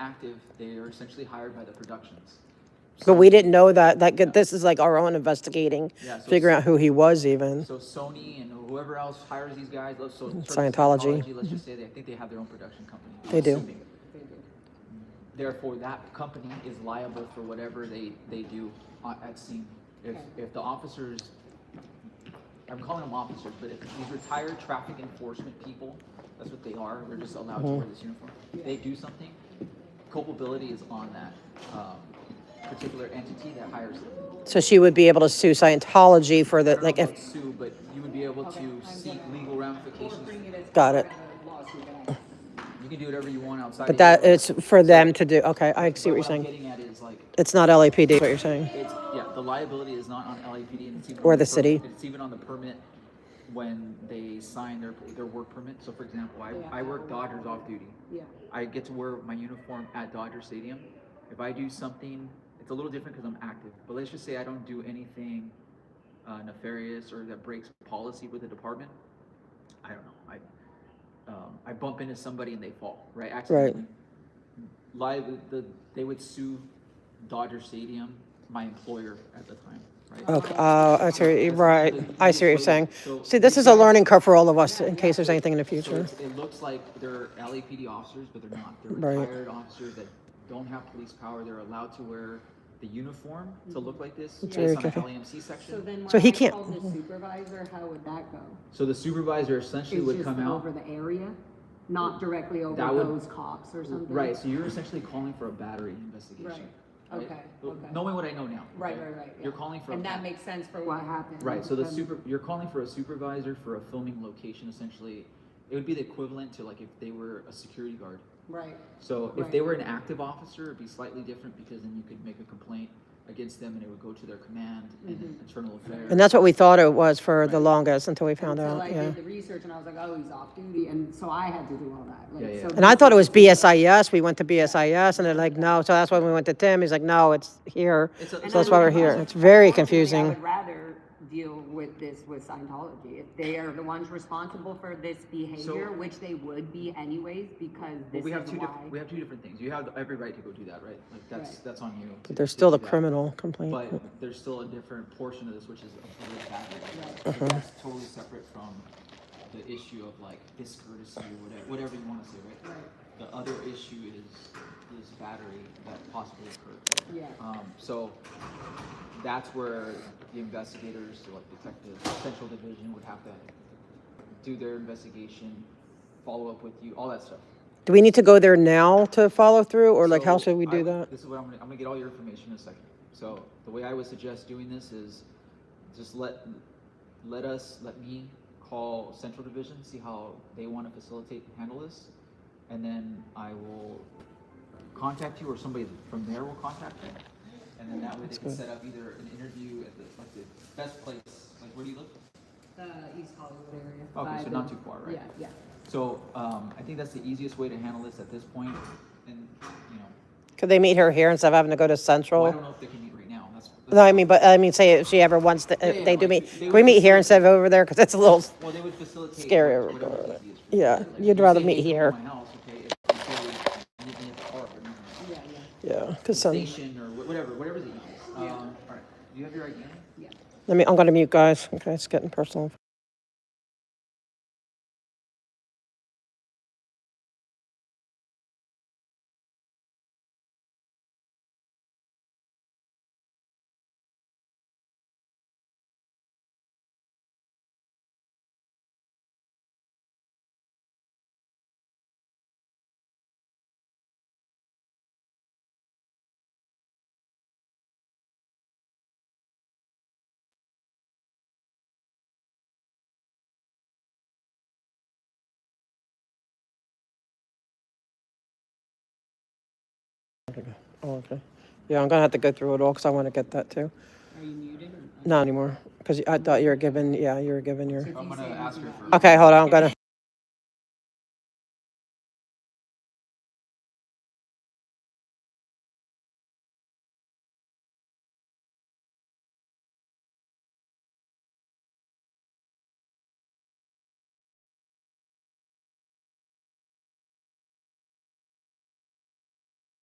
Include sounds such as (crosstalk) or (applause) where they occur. active, they are essentially hired by the productions. But we didn't know that, like, this is like our own investigating, Yeah, so- figuring out who he was even. So Sony and whoever else hires these guys, let's, so. sort of Scientology. Let's just say they, I think they have their own production company. I'm They do. assuming. Therefore, that company is liable for whatever they, they do on- at scene. If, if the officers, I'm calling them officers, but if these retired traffic enforcement people, that's what they are, they're just allowed to Mm-hmm. wear this uniform. They do something, culpability is on that, um, particular entity that hires them. So she would be able to sue Scientology for the, I don't know like, about if, Sue, but you would be able to seek legal ramifications. got it. You can do whatever you want outside. But of that, your- it's for them to do, okay, I see what you're What I'm saying. getting at is like, It's not LAPD, is what you're saying. it's, yeah, the liability is not on LAPD and it's even. Or on the per- city. It's even on the permit when they sign their, their work permit. So for example, I, I work Dodgers off duty. Yeah. I get to wear my uniform at Dodger Stadium. If I do something, it's a little different because I'm active. But let's just say I don't do anything uh, nefarious or that breaks policy with the department. I don't know. I um, I bump into somebody and they fall right accidentally. Live the they would sue Dodger Stadium, my employer at the time. Right. Okay, uh, I see, what- right, I see what you're saying. So- See, this is a learning curve for all of us, in case there's anything in the So future. it's, it looks like they're LAPD officers, but they're not. They're Right. retired officers that don't have police power. They're allowed to wear the uniform to look like this very based on the confusing. LAMC Mm-hmm. So section. So then when he I can't- call the supervisor, how would that go? So the supervisor essentially It's would just come over out. the area, not directly over That would- those cops or something? Right, so you're essentially calling for a battery investigation. Right. right? Okay, Well, okay. Knowing what I know now. Right, okay? right, right. yeah. You're calling for. a And that ba- makes sense for What what, happened? Right, so the Then- super, you're calling for a supervisor for a filming location essentially. It would be the equivalent to like if they were a security guard. right, So if they Right. were an active officer, it'd be slightly different because then you could make a complaint against them and it would go to their command and Mm-hmm. then internal affairs. And that's what we thought it was for the longest until we found Until out, I yeah. did the research and I was like, oh, he's off duty, and so I had to do all that. like, Yeah, yeah. so And I thought it was BSIS, we went to BSIS, and they're like, no, so that's why we went to Tim, he's like, no, it's here, It's a- so And And that's I why would- we're here, it's unfortunately, very I confusing. would rather deal with this with Scientology. If they are the ones responsible for this behavior, which they would be anyways, because But this we have is two, diff- we why. have two different things. You have every right to go do that, right? Like that's, Right. that's on you. to- But There's to still do the that. criminal complaint. But there's still a different portion of this, which is a public battery. So That's totally separate from the issue of like discourtesy or whatever, whatever you wanna say, right? The other issue is, is battery that possibly occurred. Yeah. Um, so that's where the investigators, so like detectives, central division would have to do their investigation, follow up with you, all that stuff. Do we need to go there now to follow through, or like, how So should we I do would- that? This is what I'm gonna, I'm gonna get all your information in a second. So the way I would suggest doing this is just let, let us, let me call central division, see how they wanna facilitate and handle this. And then I will contact you or somebody from there will contact you. And then that way they can set up either an interview at the, like the best place, like where do you live? Uh, East Hollywood area. Okay, by so the- not too far, right? Yeah, yeah. So, um, I think that's the easiest way to handle this at this point and, you know, Could they meet her here instead of having to go to well, I Central? don't know if they can meet right now, that's. that's- No, I mean, but, I mean, say if she ever wants to, Yeah, if yeah, they do like, meet, they can would we meet just- here instead of over there? Because it's (laughs) a little, Well, they would facilitate. Scary what- whatever regard. is easiest for them. Yeah, Like, you'd if you rather say, "Hey, meet come to here." My house, okay, if you say, meet me at the park or meet me at Yeah, yeah, yeah, the because, let station or wh- whatever, whatever's the easiest. Um, all right, do you have your ID? yeah. me, I'm gonna mute guys, okay, it's getting personal. Oh, okay. Yeah, I'm gonna have to go through it all, because I want to get that too. Are you muted or? Not anymore, because I thought you were given, yeah, you were given your, I'm gonna ask her for. okay, hold on, I'm gonna,